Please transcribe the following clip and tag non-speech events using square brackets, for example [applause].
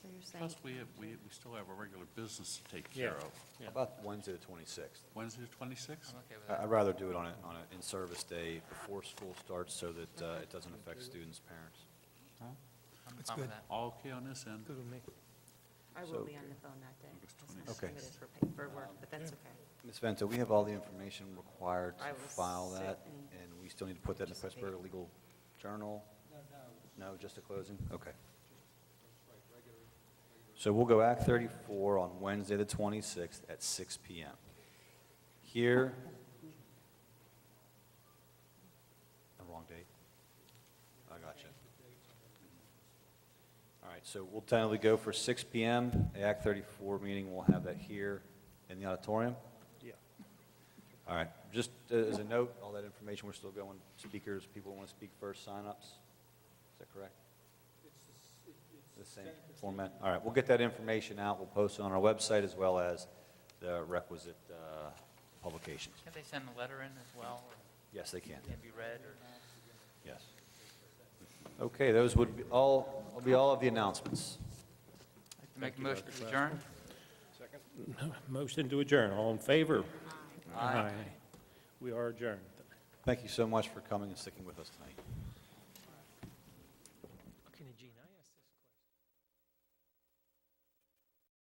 Plus, saying, we have, we, we still have a regular business to take care Yeah. of. Yeah. How about Wednesday, the 26th? Wednesday, the twenty-sixth? I'm okay with I- that. I'd rather do it on a, on an in-service day before school starts so that uh, it doesn't affect students' parents. I'm That's fine with good. that. All okay on this end? Good with me. I So- will be on the phone that day. August That's not 26th. Okay. permitted for pa- for work, but that's okay. Ms. Vento, we have all the information required I to will file sit that, and and we still need to put that in the participate. Pressburg Legal Journal? No, no. just a closing? Okay. So we'll go Act 34 on Wednesday, the 26th, at 6 PM. Here, the wrong date. I got you. All right, so we'll tentatively go for 6 PM, The Act 34 meeting, we'll have that here in the auditorium. Yeah. [laughs] All right, just uh, as a note, all that information, we're still going, speakers, people who want to speak first, signups, is that correct? The same format, all right, we'll get that information out, we'll post it on our website as well as the requisite uh, publications. Can they send a letter in as well, or Yes, they can, can it be read, or? yes. Okay, those would be all, will be all of the announcements. Make a motion to adjourn? Motion to adjourn, all in favor? Aye. We are adjourned. Thank you so much for coming and sticking with us tonight.